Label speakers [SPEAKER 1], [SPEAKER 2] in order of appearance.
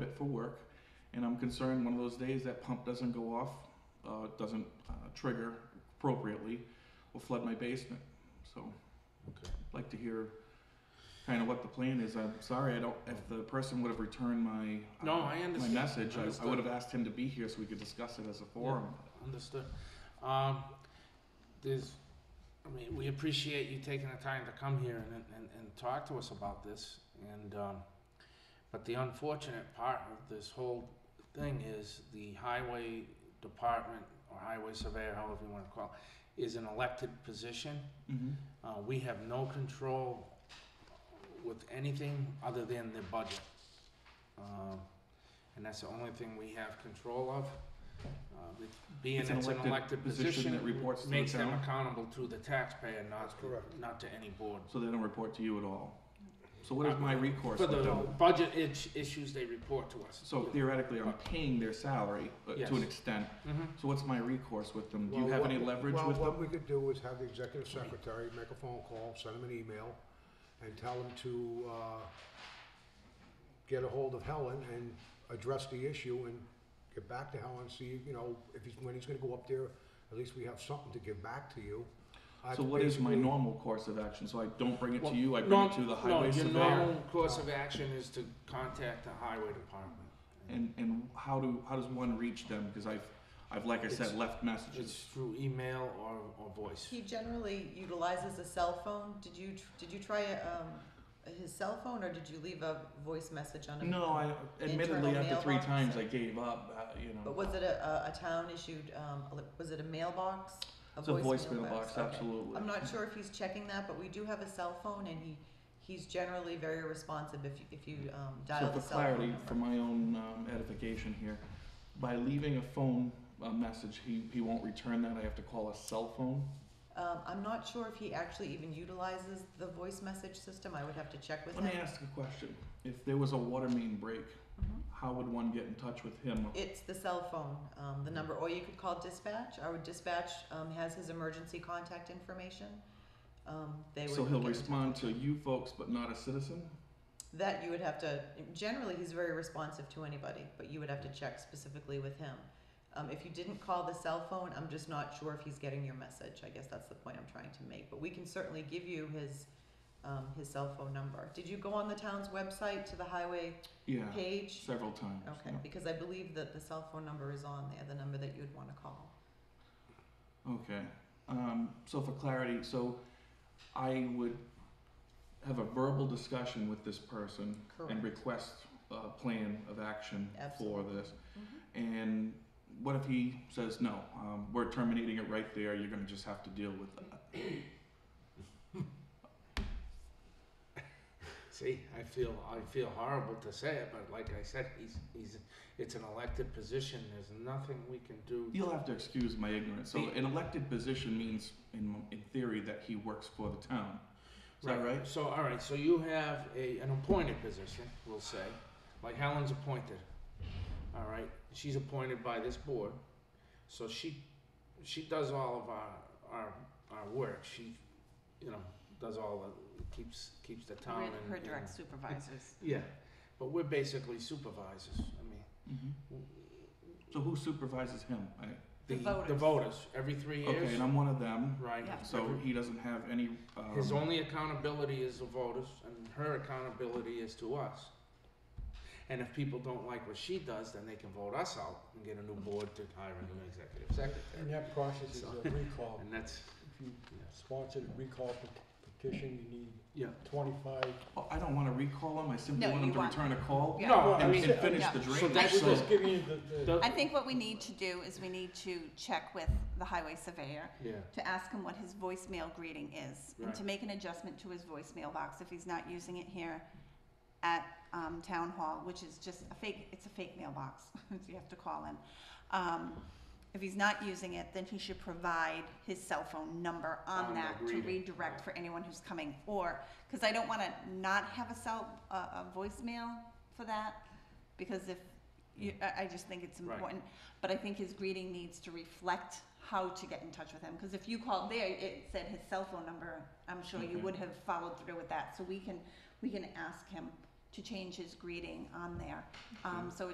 [SPEAKER 1] for work, and I'm concerned one of those days that pump doesn't go off, uh, doesn't uh, trigger appropriately, will flood my basement. So,
[SPEAKER 2] Okay.
[SPEAKER 1] I'd like to hear kind of what the plan is. I'm sorry, I don't. If the person would have returned my uh,
[SPEAKER 2] No, I
[SPEAKER 1] my
[SPEAKER 2] understand.
[SPEAKER 1] message, I, I
[SPEAKER 2] Understood.
[SPEAKER 1] would have asked him to be here so we could discuss it as a forum.
[SPEAKER 2] Understood. Um, there's, I mean, we appreciate you taking the time to come here and, and, and talk to us about this. And, um, but the unfortunate part of this whole thing is the highway department or highway surveyor, however you wanna call it, is an elected position.
[SPEAKER 1] Mhm.
[SPEAKER 2] Uh, we have no control with anything other than the budget. Um, and that's the only thing we have control of. Uh, with- Being
[SPEAKER 1] It's an
[SPEAKER 2] it's an
[SPEAKER 1] elected
[SPEAKER 2] elected
[SPEAKER 1] position
[SPEAKER 2] position,
[SPEAKER 1] that reports to
[SPEAKER 2] it
[SPEAKER 1] the
[SPEAKER 2] makes them
[SPEAKER 1] town.
[SPEAKER 2] accountable to the taxpayer, not,
[SPEAKER 3] That's correct.
[SPEAKER 2] not to any board.
[SPEAKER 1] So they don't report to you at all. So what is my recourse?
[SPEAKER 2] Uh, For
[SPEAKER 1] with
[SPEAKER 2] the
[SPEAKER 1] them?
[SPEAKER 2] budget itch- issues, they report to us.
[SPEAKER 1] So theoretically, I'm paying their salary uh,
[SPEAKER 2] Yes.
[SPEAKER 1] to an extent.
[SPEAKER 2] Mhm.
[SPEAKER 1] So what's my recourse with them? Do you
[SPEAKER 3] Well,
[SPEAKER 1] have
[SPEAKER 3] what-
[SPEAKER 1] any leverage
[SPEAKER 3] well,
[SPEAKER 1] with
[SPEAKER 3] what
[SPEAKER 1] them?
[SPEAKER 3] we could do is have the executive secretary make a phone call, send him an email, and tell him to, uh, get ahold of Helen and address the issue and get back to Helen, see, you know, if he's, when he's gonna go up there, at least we have something to give back to you. I've
[SPEAKER 1] So what is my
[SPEAKER 3] basically-
[SPEAKER 1] normal course of action? So I don't bring it
[SPEAKER 2] Well,
[SPEAKER 1] to you. I bring
[SPEAKER 2] norm-
[SPEAKER 1] it to the
[SPEAKER 2] no,
[SPEAKER 1] highway surveyor.
[SPEAKER 2] Your normal course of action is to contact the highway department.
[SPEAKER 1] And and how do how does one reach them? Because I've I've like I said
[SPEAKER 2] It's-
[SPEAKER 1] left
[SPEAKER 2] It's
[SPEAKER 1] messages.
[SPEAKER 2] through email or, or voice.
[SPEAKER 4] He generally utilizes a cell phone. Did you tr- did you try um, his cell phone or did you leave a voice message on him?
[SPEAKER 1] No, I admittedly
[SPEAKER 4] Internal
[SPEAKER 1] after three
[SPEAKER 4] mailbox?
[SPEAKER 1] times I gave up. Uh, you know,
[SPEAKER 4] But was it a, a, a town issued? Um, ele- was it a mailbox?
[SPEAKER 1] it's a voice mailbox,
[SPEAKER 4] Okay.
[SPEAKER 1] absolutely.
[SPEAKER 4] I'm not sure if he's checking that, but we do have a cell phone, and he he's generally very responsive if you, if you um,
[SPEAKER 1] So
[SPEAKER 4] dial
[SPEAKER 1] for
[SPEAKER 4] the cell phone.
[SPEAKER 1] clarity,
[SPEAKER 4] number.
[SPEAKER 1] for my own um, edification here, by leaving a phone uh, message, he he won't return that. I have to call a cell phone.
[SPEAKER 4] Um, I'm not sure if he actually even utilizes the voice message system. I would have to check with
[SPEAKER 1] Let me
[SPEAKER 4] him.
[SPEAKER 1] ask a question. If there was a water main break,
[SPEAKER 4] Mhm.
[SPEAKER 1] how would one get in touch with him?
[SPEAKER 4] It's the cell phone, um, the number, or you could call dispatch. Our dispatch, um, has his emergency contact information. Um, they would.
[SPEAKER 1] So he'll
[SPEAKER 4] get-
[SPEAKER 1] respond to you folks, but not a citizen?
[SPEAKER 4] That you would have to, generally, he's very responsive to anybody, but you would have to check specifically with him. Um, if you didn't call the cell phone, I'm just not sure if he's getting your message. I guess that's the point I'm trying to make, but we can certainly give you his, um, his cell phone number. Did you go on the town's website to the highway
[SPEAKER 1] Yeah,
[SPEAKER 4] page?
[SPEAKER 1] several times.
[SPEAKER 4] Okay, because I believe that the cell phone number is on there, the number that you'd wanna call.
[SPEAKER 1] yeah. Okay. Um, so for clarity, so I would have a verbal discussion with this person and request a plan of action for
[SPEAKER 4] Absolutely. Mm-hmm.
[SPEAKER 1] this. And what if he says, no, um, we're terminating it right there, you're gonna just have to deal with that?
[SPEAKER 4] Mm-hmm.
[SPEAKER 2] See, I feel I feel horrible to say it, but like I said, he's he's it's an elected position. There's nothing we can do.
[SPEAKER 1] You'll have to excuse my ignorance. So
[SPEAKER 2] The-
[SPEAKER 1] an elected position means, in, in theory, that he works for the town. Is that right?
[SPEAKER 2] So all right, so you have a an appointed position, we'll say, like Helen's appointed. All right, she's appointed by this board, so she she does all of our our our work. She, you know, does all the keeps keeps the town. in-
[SPEAKER 5] Her
[SPEAKER 2] in-
[SPEAKER 5] direct supervisors.
[SPEAKER 2] Yeah, but we're basically supervisors. I mean.
[SPEAKER 1] Mhm. So who supervises him? I,
[SPEAKER 2] The,
[SPEAKER 5] The
[SPEAKER 2] the
[SPEAKER 5] voters.
[SPEAKER 2] voters every three years.
[SPEAKER 1] okay, and I'm one of them.
[SPEAKER 2] Right.
[SPEAKER 5] Yeah.
[SPEAKER 1] So he doesn't have any. Um,
[SPEAKER 2] His only accountability is the voters, and her accountability is to us. And if people don't like what she does, then they can vote us out and get a new board to hire a new executive
[SPEAKER 6] And
[SPEAKER 2] secretary.
[SPEAKER 6] that process is a recall.
[SPEAKER 2] And that's,
[SPEAKER 6] If you sponsor a recall pet- petition, you need
[SPEAKER 2] yeah.
[SPEAKER 6] twenty-five.
[SPEAKER 1] oh, I don't want to recall him. I simply
[SPEAKER 5] No,
[SPEAKER 1] want
[SPEAKER 5] you
[SPEAKER 1] him to
[SPEAKER 5] want-
[SPEAKER 1] return a call
[SPEAKER 5] Yeah.
[SPEAKER 2] No, I
[SPEAKER 1] and,
[SPEAKER 2] mean,
[SPEAKER 1] and finish
[SPEAKER 5] yeah.
[SPEAKER 1] the drainage.
[SPEAKER 2] So that's
[SPEAKER 6] We're
[SPEAKER 1] so,
[SPEAKER 6] just giving you the, the,
[SPEAKER 2] the-
[SPEAKER 5] I think what we need to do is we need to check with the highway surveyor
[SPEAKER 2] yeah,
[SPEAKER 5] to ask him what his voicemail greeting is and to
[SPEAKER 2] Right.
[SPEAKER 5] make an adjustment to his voicemail box if he's not using it here at um, town hall, which is just a fake, it's a fake mailbox, you have to call in. Um, if he's not using it, then he should provide his cell phone number on
[SPEAKER 2] On the
[SPEAKER 5] that to
[SPEAKER 2] greeting,
[SPEAKER 5] redirect
[SPEAKER 2] right.
[SPEAKER 5] for anyone who's coming or, cause I don't wanna not have a cell, a, a voicemail for that. Because if you, I, I just think it's
[SPEAKER 2] Right.
[SPEAKER 5] important, but I think his greeting needs to reflect how to get in touch with him, cause if you called there, it said his cell phone number, I'm sure you
[SPEAKER 1] Okay.
[SPEAKER 5] would have followed through with that, so we can, we can ask him to change his greeting on there, um, so